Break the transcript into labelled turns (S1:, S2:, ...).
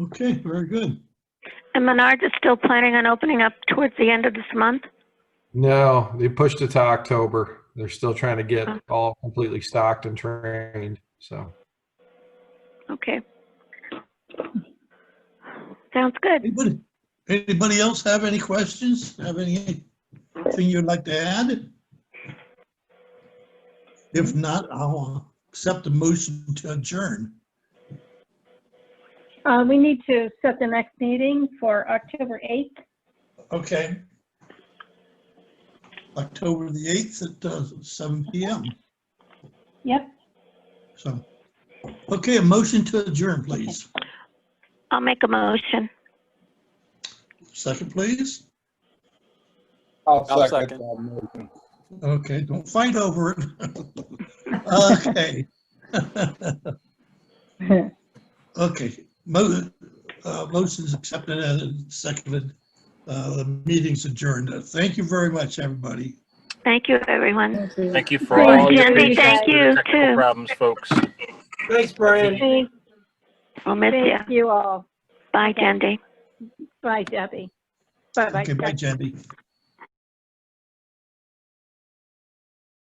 S1: Okay, very good.
S2: And Menards is still planning on opening up towards the end of this month?
S3: No, they pushed it to October. They're still trying to get
S2: Okay.
S3: all completely stocked and trained, so.
S2: Okay. Sounds good.
S1: Anybody, anybody else have any questions? Have anything you'd like to add? If not, I'll accept the motion to adjourn.
S4: Uh, we need to set the next meeting for October 8th.
S1: Okay. October the 8th at uh, seven PM,
S4: Yep,
S1: so. Okay, a motion to adjourn, please.
S2: I'll make a motion.
S1: Second, please.
S5: I'll
S6: I'll
S5: second
S6: second.
S5: that motion.
S1: Okay, don't fight over it. Okay. Okay, mo- uh, motion's accepted and seconded. Uh, The meeting's adjourned. Uh, Thank you very much, everybody.
S2: Thank you, everyone.
S6: Thank you for
S4: Thanks,
S6: all your
S4: Andy.
S6: patience
S4: Thank
S6: with the
S2: you,
S6: technical
S2: too.
S6: problems, folks.
S7: Thanks, Brian.
S4: thank,
S2: We'll miss you.
S4: thank you all.
S2: Bye, Jendi.
S4: Bye, Debbie. Bye-bye.
S1: Okay, bye, Jenny.